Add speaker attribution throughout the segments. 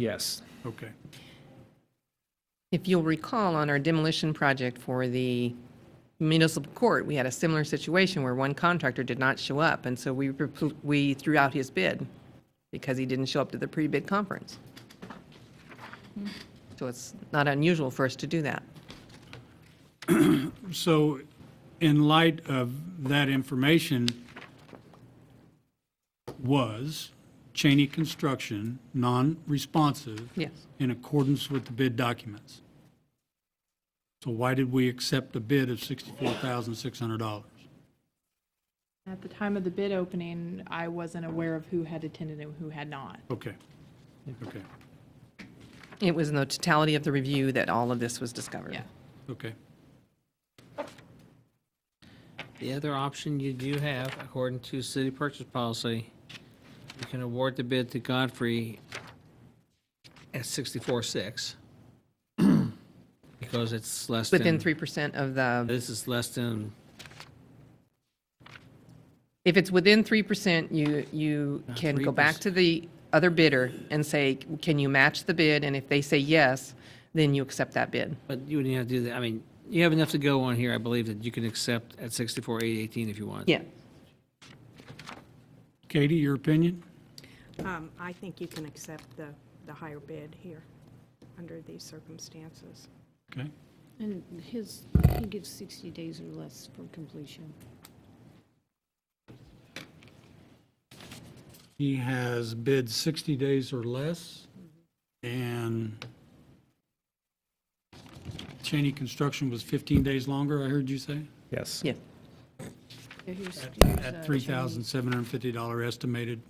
Speaker 1: Yes.
Speaker 2: Okay.
Speaker 3: If you'll recall, on our demolition project for the municipal court, we had a similar situation where one contractor did not show up, and so we, repl- we threw out his bid because he didn't show up to the pre-bid conference. So it's not unusual for us to do that.
Speaker 2: So in light of that information, was Cheney Construction non-responsive
Speaker 3: Yes.
Speaker 2: in accordance with the bid documents? So why did we accept a bid of $64,600?
Speaker 4: At the time of the bid opening, I wasn't aware of who had attended and who had not.
Speaker 2: Okay. Okay.
Speaker 3: It was in the totality of the review that all of this was discovered.
Speaker 4: Yeah.
Speaker 2: Okay.
Speaker 5: The other option you do have, according to city purchase policy, you can award the bid to Godfrey at sixty-four six. Because it's less than.
Speaker 3: Within 3% of the,
Speaker 5: This is less than,
Speaker 3: if it's within 3%, you, you can go back
Speaker 5: 3%.
Speaker 3: to the other bidder and say, can you match the bid? And if they say yes, then you accept that bid.
Speaker 5: but you wouldn't have to do that. I mean, you have enough to go on here, I believe, that you can accept at sixty-four eight eighteen if you want.
Speaker 3: Yeah.
Speaker 2: Katie, your opinion?
Speaker 6: Um, I think you can accept the, the higher bid here, under these circumstances.
Speaker 2: Okay.
Speaker 7: And his, he gives 60 days or less for completion.
Speaker 2: He has bid 60 days or less, and Cheney Construction was 15 days longer, I heard you say?
Speaker 1: Yes.
Speaker 3: Yeah.
Speaker 7: Yeah, here's- here's, uh,
Speaker 2: At $3,750 estimated.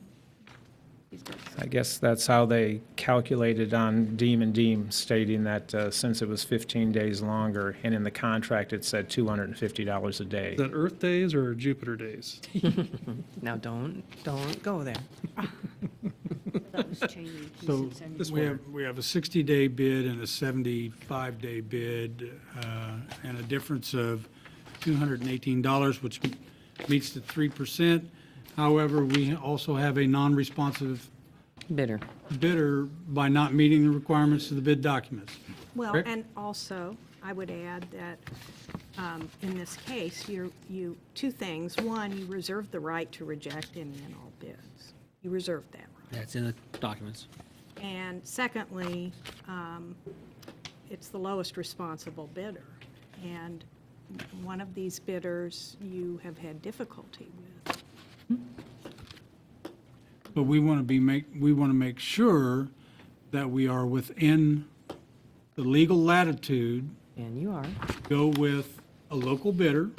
Speaker 7: he's got
Speaker 1: I guess that's how they calculated on Deem and Deem, stating that uh, since it was 15 days longer, and in the contract, it said $250 a day.
Speaker 8: Is that Earth days or Jupiter days?
Speaker 3: Now, don't, don't go there.
Speaker 7: That was Cheney. He
Speaker 2: So
Speaker 7: sits in-
Speaker 2: we have, we have a 60-day bid and a 75-day bid, uh, and a difference of $218, which meets the 3%. However, we also have a non-responsive
Speaker 3: Bitter.
Speaker 2: bidder by not meeting the requirements of the bid documents.
Speaker 6: Well,
Speaker 2: Correct.
Speaker 6: and also, I would add that um, in this case, you, you, two things. One, you reserve the right to reject any and all bids. You reserve that right.
Speaker 5: That's in the documents.
Speaker 6: And secondly, um, it's the lowest responsible bidder. And one of these bidders you have had difficulty with.
Speaker 2: But we want to be make, we want to make sure that we are within the legal latitude,
Speaker 3: And you are.
Speaker 2: go with a local bidder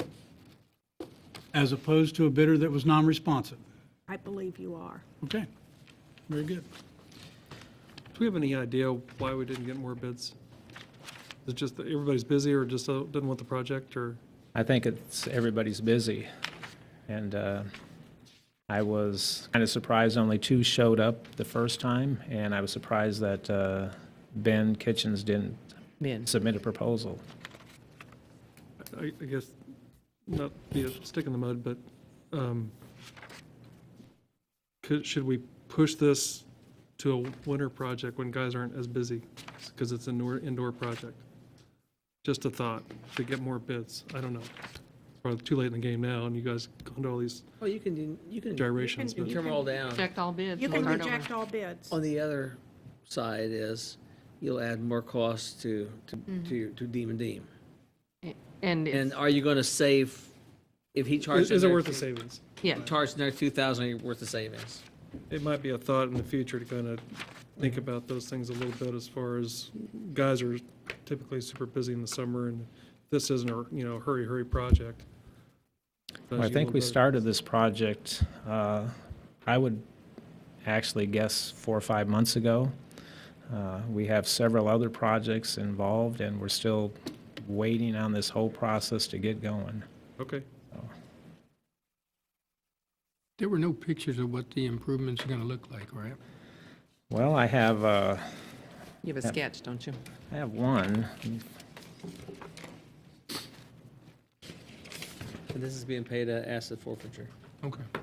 Speaker 2: as opposed to a bidder that was non-responsive.
Speaker 6: I believe you are.
Speaker 2: Okay, very good.
Speaker 8: Do we have any idea why we didn't get more bids? Is it just that everybody's busy or just uh, didn't want the project or?
Speaker 1: I think it's, everybody's busy. And uh, I was kind of surprised only two showed up the first time, and I was surprised that uh, Ben Kitchens didn't
Speaker 3: Bid.
Speaker 1: submit a proposal.
Speaker 8: I, I guess, not be a stick in the mud, but, um, could, should we push this to a winter project when guys aren't as busy? Because it's an indoor, indoor project. Just a thought, to get more bids, I don't know. Probably too late in the game now, and you guys gone to all these
Speaker 5: Oh, you can, you can
Speaker 8: gyrations, but
Speaker 5: trim it all down.
Speaker 3: Reject all bids.
Speaker 6: You
Speaker 3: and
Speaker 6: can
Speaker 3: start over.
Speaker 6: reject all bids.
Speaker 5: On the other side is, you'll add more costs to, to,
Speaker 3: Mm-hmm.
Speaker 5: to your- to Deem and Deem.
Speaker 3: And,
Speaker 5: And
Speaker 3: it's-
Speaker 5: are you gonna save, if he charges?
Speaker 8: is is it
Speaker 5: another
Speaker 8: worth the
Speaker 5: two-
Speaker 8: savings?
Speaker 3: yeah,
Speaker 5: Charge another two thousand worth of savings.
Speaker 8: It might be a thought in the future to kind of think about those things a little bit as far as guys are typically super busy in the summer and this isn't a, you know, hurry, hurry project.
Speaker 1: Well, I
Speaker 8: Does you
Speaker 1: think
Speaker 8: a
Speaker 1: we
Speaker 8: little
Speaker 1: started this project, uh, I would actually guess four or five months ago. Uh, We have several other projects involved, and we're still waiting on this whole process to get going.
Speaker 8: bit- Okay.
Speaker 9: There were no pictures of what the improvements are going to look like, right?
Speaker 1: Well, I have, uh,
Speaker 3: you have a sketch, don't you?
Speaker 1: I have one.
Speaker 5: And this is being paid at asset forfeiture.
Speaker 9: Okay.